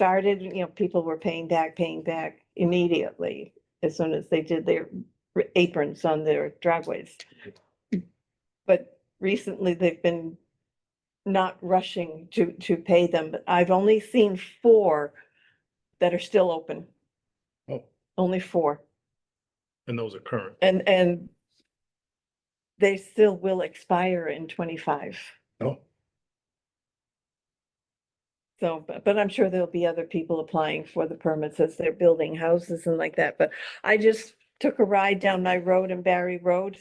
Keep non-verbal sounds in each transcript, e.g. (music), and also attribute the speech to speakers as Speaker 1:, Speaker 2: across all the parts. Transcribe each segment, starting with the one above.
Speaker 1: started, you know, people were paying back, paying back immediately as soon as they did their r- aprons on their driveways. But recently they've been not rushing to, to pay them, but I've only seen four that are still open,
Speaker 2: Oh,
Speaker 1: only four.
Speaker 2: and those are current.
Speaker 1: And, and they still will expire in twenty-five.
Speaker 2: Oh,
Speaker 1: So, but, but I'm sure there'll be other people applying for the permits as they're building houses and like that, but I just took a ride down my road in Barry Road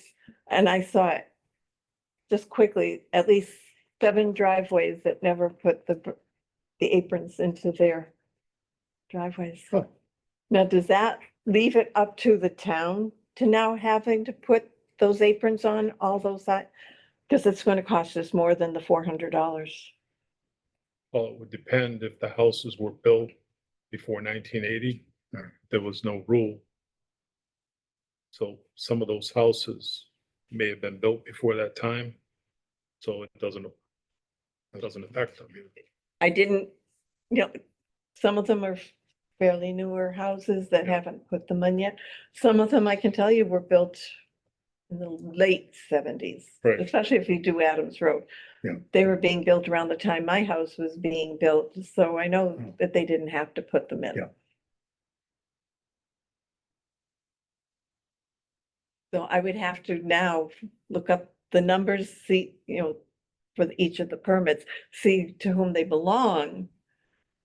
Speaker 1: and I saw it. Just quickly, at least seven driveways that never put the, br- the aprons into their driveways.
Speaker 2: Huh.
Speaker 1: Now, does that leave it up to the town to now having to put those aprons on all those side? Cause it's gonna cost us more than the four hundred dollars.
Speaker 2: well, it would depend if the houses were built before nineteen eighty, there was no rule. So some of those houses may have been built before that time, so it doesn't, it doesn't affect them.
Speaker 1: I didn't, you know, some of them are fairly newer houses that
Speaker 2: Yeah.
Speaker 1: haven't put them in yet. Some of them, I can tell you, were built in the late seventies.
Speaker 2: Right.
Speaker 1: Especially if you do Adams Road.
Speaker 2: Yeah.
Speaker 1: They were being built around the time my house was being built, so I
Speaker 2: Mm.
Speaker 1: know that they didn't have to put them in.
Speaker 2: Yeah.
Speaker 1: So I would have to now look up the numbers, see, you know, for the- each of the permits, see to whom they belong.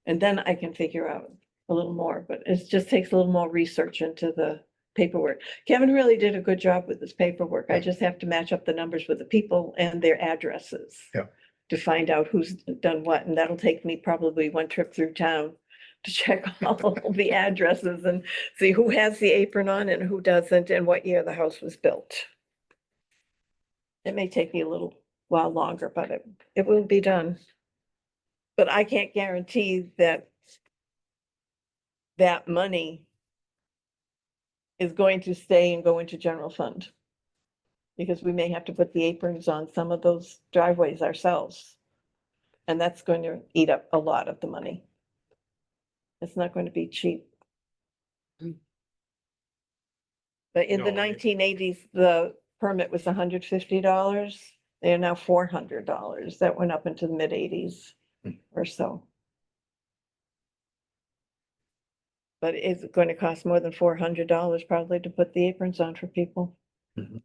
Speaker 1: And then I can figure out a little more, but it just takes a little more research into the paperwork. Kevin really did a good job with this paperwork. I
Speaker 2: Yeah.
Speaker 1: just have to match up the numbers with the people and their addresses.
Speaker 2: Yeah.
Speaker 1: To find out who's done what, and that'll take me probably one trip through town to check (laughs) all the addresses and see who has the apron on and who doesn't and what year the house was built. It may take me a little while longer, but it, it will be done. But I can't guarantee that that money is going to stay and go into general fund. Because we may have to put the aprons on some of those driveways ourselves. And that's going to eat up a lot of the money. It's not going to be cheap.
Speaker 3: Mm.
Speaker 1: But in the
Speaker 2: No, I mean-
Speaker 1: nineteen eighties, the permit was hundred fifty dollars. They are now four hundred dollars. That went up into the mid eighties
Speaker 2: Mm.
Speaker 1: or so. But it's going to cost more than four hundred dollars probably to put the aprons on for people.
Speaker 2: Mhm.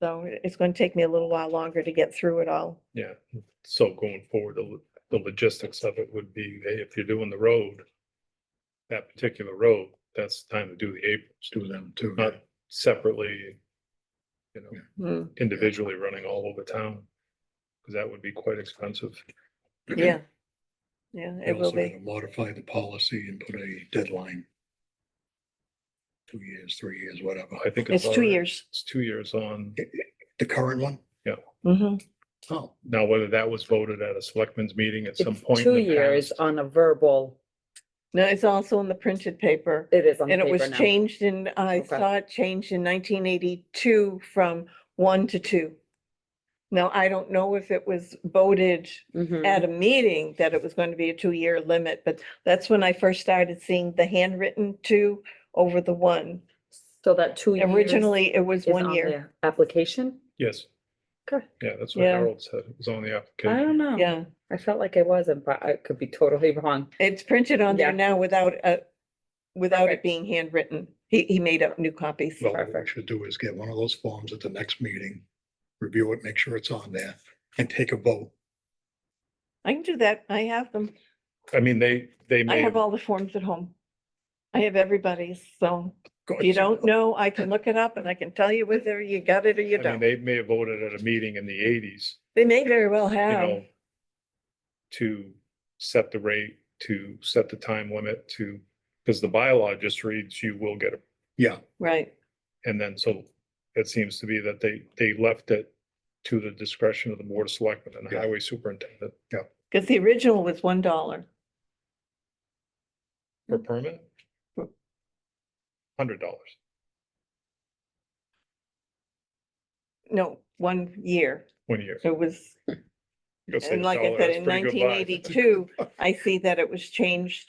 Speaker 1: So it- it's going to take me a little while longer to get through it all.
Speaker 2: Yeah, so going forward, the, lo- the logistics of it would be, hey, if you're doing the road, that particular road, that's the time to do the aprons,
Speaker 3: do them too.
Speaker 2: not separately, you know,
Speaker 4: (clears throat)
Speaker 1: Hmm,
Speaker 2: individually running all over town. Because that would be quite expensive.
Speaker 1: yeah. Yeah,
Speaker 3: We're
Speaker 1: it will
Speaker 3: also
Speaker 1: be.
Speaker 3: gonna Modify the policy and put a deadline. Two years, three years, whatever.
Speaker 2: I think.
Speaker 1: It's two
Speaker 2: already-
Speaker 1: years.
Speaker 2: It's two years on.
Speaker 3: The current one?
Speaker 1: hmm
Speaker 3: Oh,
Speaker 2: Now, whether that was voted at a selectmen's meeting at some
Speaker 4: It's
Speaker 2: point. in
Speaker 4: two
Speaker 2: the
Speaker 4: years
Speaker 2: past,
Speaker 4: on a verbal,
Speaker 1: No, it's also in the printed paper.
Speaker 4: it is on the
Speaker 1: And it was
Speaker 4: paper now.
Speaker 1: changed in, I
Speaker 4: Okay.
Speaker 1: saw it changed in nineteen eighty-two from one to two. Now, I don't know if it was voted
Speaker 4: Mhm.
Speaker 1: at a meeting that it was going to be a two-year limit, but that's when I first started seeing the handwritten two over the one.
Speaker 4: So that two years.
Speaker 1: Originally, it was
Speaker 4: is
Speaker 1: one
Speaker 4: on
Speaker 1: year.
Speaker 4: the Application?
Speaker 2: Yes.
Speaker 4: Okay.
Speaker 2: Yeah, that's what
Speaker 1: Yeah. Um,
Speaker 2: Harold said. It was on the application.
Speaker 4: I don't know.
Speaker 1: Yeah,
Speaker 4: I felt like I wasn't, but I could be totally (laughs) wrong.
Speaker 1: it's printed on there
Speaker 4: Yeah.
Speaker 1: now without, uh, without it
Speaker 4: Perfect.
Speaker 1: being handwritten. He, he made up new copies.
Speaker 3: well, what we
Speaker 4: Perfect.
Speaker 3: should do is get one of those forms at the next meeting, review it, make sure it's on there, and take a vote.
Speaker 1: I can do that. I have them.
Speaker 2: I mean, they, they
Speaker 1: I
Speaker 2: may,
Speaker 1: have all the forms at home. I have everybody's, so
Speaker 3: Go
Speaker 1: if you
Speaker 3: ahead.
Speaker 1: don't know, I can look it up and I can tell you whether you got it or you
Speaker 2: I mean,
Speaker 1: don't.
Speaker 2: they may have voted at a meeting in the eighties,
Speaker 1: They may very well
Speaker 2: you
Speaker 1: have.
Speaker 2: know, to set the rate, to set the time limit, to, because the bylaw just reads you will get a
Speaker 3: Yeah,
Speaker 1: Right,
Speaker 2: And then so it seems to be that they, they left it to the discretion of the board of selectmen and the
Speaker 3: Yeah.
Speaker 2: highway superintendent
Speaker 1: because the original was one dollar.
Speaker 2: for permit.
Speaker 1: Hmm.
Speaker 2: Hundred dollars.
Speaker 1: No, one year.
Speaker 2: One year.
Speaker 1: It was,
Speaker 2: You go save
Speaker 1: and
Speaker 2: a
Speaker 1: like I
Speaker 2: dollar,
Speaker 1: said,
Speaker 2: that's
Speaker 1: in
Speaker 2: pretty good buy.
Speaker 1: nineteen eighty-two, I see that it was changed